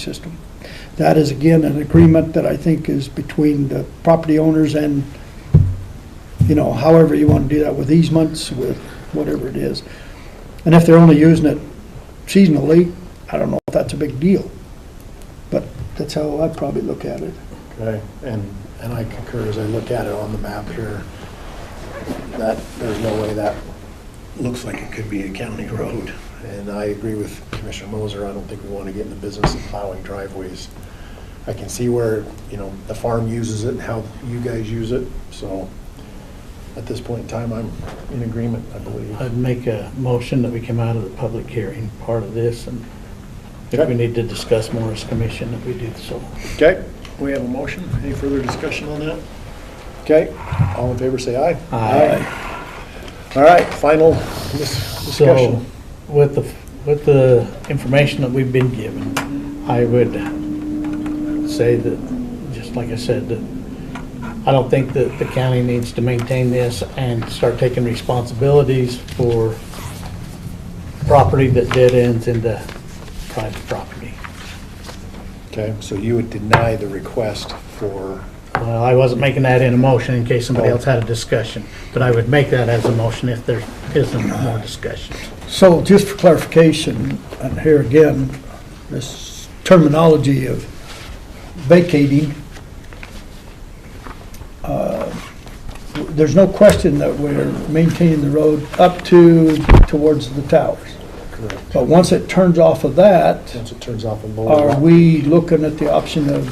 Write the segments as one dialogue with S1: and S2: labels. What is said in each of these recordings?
S1: system. That is, again, an agreement that I think is between the property owners and, you know, however you want to do that, with easements, with whatever it is. And if they're only using it seasonally, I don't know if that's a big deal, but that's how I'd probably look at it.
S2: Okay, and, and I concur as I look at it on the map here, that, there's no way that looks like it could be a county road. And I agree with Commissioner Moser, I don't think we want to get in the business of plowing driveways. I can see where, you know, the farm uses it and how you guys use it, so at this point in time, I'm in agreement, I believe.
S3: I'd make a motion that we come out of the public hearing part of this, and if
S2: Okay.
S3: we need to discuss more as commission, that we do so.
S2: Okay, we have a motion. Any further discussion on that? Okay, all in favor, say aye.
S3: Aye.
S2: All right, final dis-
S3: So,
S2: discussion.
S3: with the, with the information that we've been given, I would say that, just like I said, that I don't think that the county needs to maintain this and start taking responsibilities for property that dead ends into private property.
S2: Okay, so you would deny the request for,
S3: Well, I wasn't making that in a motion in case somebody else had a discussion, but I would make that as a motion if there isn't more discussion.
S1: So just for clarification, and here again, this terminology of vacating, uh, there's no question that we're maintaining the road up to, towards the towers.
S2: correct,
S1: But once it turns off of that,
S2: once it turns off a
S1: are
S2: lower.
S1: we looking at the option of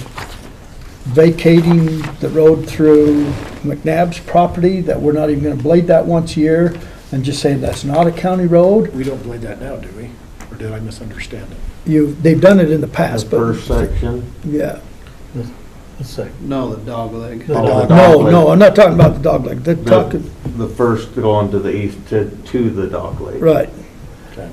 S1: vacating the road through McNabb's property, that we're not even gonna blade that once a year, and just saying that's not a county road?
S2: We don't blade that now, do we? Or did I misunderstand it?
S1: You, they've done it in the
S4: The
S1: past, but,
S4: first section,
S1: yeah.
S3: Let's see.
S5: No, the dog leg.
S3: The
S4: Oh,
S3: dog-
S1: No,
S4: leg.
S1: no, I'm not talking about the dog leg, they're
S4: the,
S1: talking,
S4: the first going to the east to, to the dock lake.
S1: right,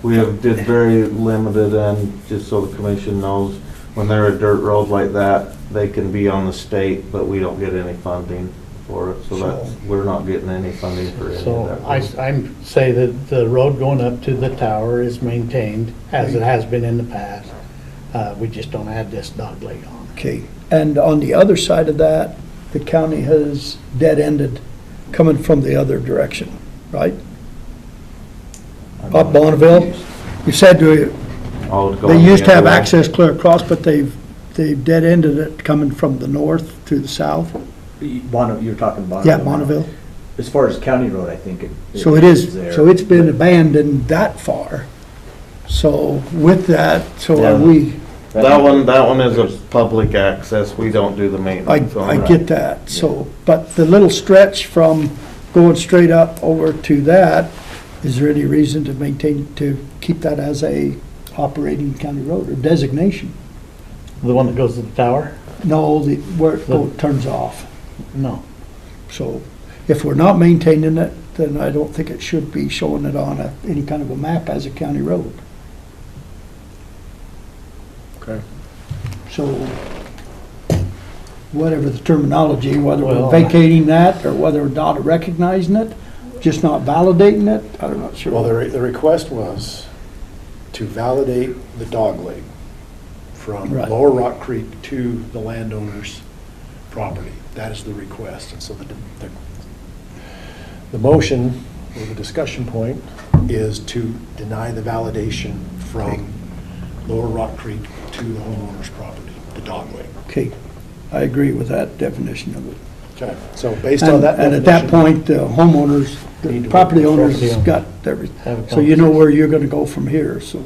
S4: We have did very limited and, just so the commission knows, when they're a dirt road like that, they can be on the state, but we don't get any funding for it, so that's, we're not getting any funding for any
S3: So
S4: of
S3: I,
S4: that.
S3: I'm say that the road going up to the tower is maintained as it has been in the past. Uh, we just don't add this dog leg on.
S1: okay. And on the other side of that, the county has dead-ended coming from the other direction, right? Up Bonneville, you said they they used to have access clear across, but they've, they've dead-ended it coming from the north to the south.
S6: Bonneville, you're talking Bonneville.
S1: Yeah, Bonneville.
S6: As far as County Road, I think it.
S1: So it is,
S6: there.
S1: so it's been abandoned that far. So with that, so are
S4: Yeah.
S1: we.
S4: That one, that one is a public access, we don't do the
S1: I,
S4: maintenance on
S1: I
S4: that.
S1: get that, so, but the little stretch from going straight up over to that, is there any reason to maintain, to keep that as a operating county road or designation?
S3: The one that goes to the tower?
S1: No, the, where it go- turns off,
S3: No.
S1: so if we're not maintaining it, then I don't think it should be showing it on a, any kind of a map as a county road.
S2: Okay.
S1: So, whatever the terminology, whether we're
S3: Well-
S1: vacating that or whether we're not recognizing it, just not validating it, I'm not sure.
S2: Well, the, re- the request was to validate the dog leg from
S1: Right.
S2: Lower Rock Creek to the landowner's property. That is the request. And so the, the, the motion, or the discussion point, is to deny the validation from Lower Rock Creek to the homeowner's property, the dog leg.
S1: Okay, I agree with that definition of it.
S2: Okay, so based on
S1: And
S2: that
S1: and at that
S2: definition-
S1: point, the homeowners,
S2: Need
S1: the
S2: to
S1: property
S2: work
S1: owners
S3: property
S1: got everything.
S3: Have a
S1: So you know where you're gonna go from here, so,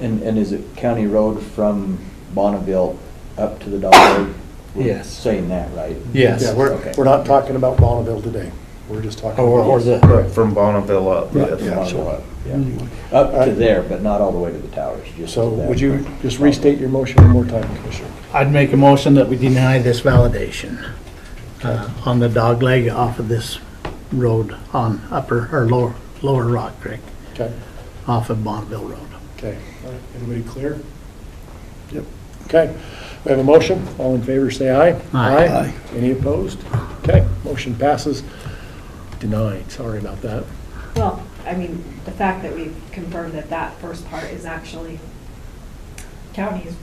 S6: And, and is it County Road from Bonneville up to the Dog Road? We're
S3: Yes.
S6: Saying that, right?
S3: Yes. Oh,
S2: Yeah, we're,
S6: Okay.
S2: we're not talking about Bonneville today. We're just talking.
S3: Or,
S2: about-
S3: or the,
S4: From Bonneville up,
S1: Right,
S4: yes.
S2: Yeah,
S6: Bonneville
S2: so-
S6: up, yeah.
S1: anyway.
S6: Up to there, but not all the way to the towers, just to
S2: So
S6: that.
S2: would you just restate your motion one more time, Commissioner?
S3: I'd make a motion that we deny this validation uh, on the dog leg off of this road on upper, or lower, lower Rock Creek,
S2: Okay,
S3: off of Bonneville Road.
S2: okay. All right, Everybody clear?
S1: Yep.
S2: Okay, we have a motion. All in favor, say aye.
S3: Aye.
S1: Aye.
S2: Any opposed? Okay, motion passes. Denied, sorry about that.
S7: Well, I mean, the fact that we've confirmed that that first part is actually county is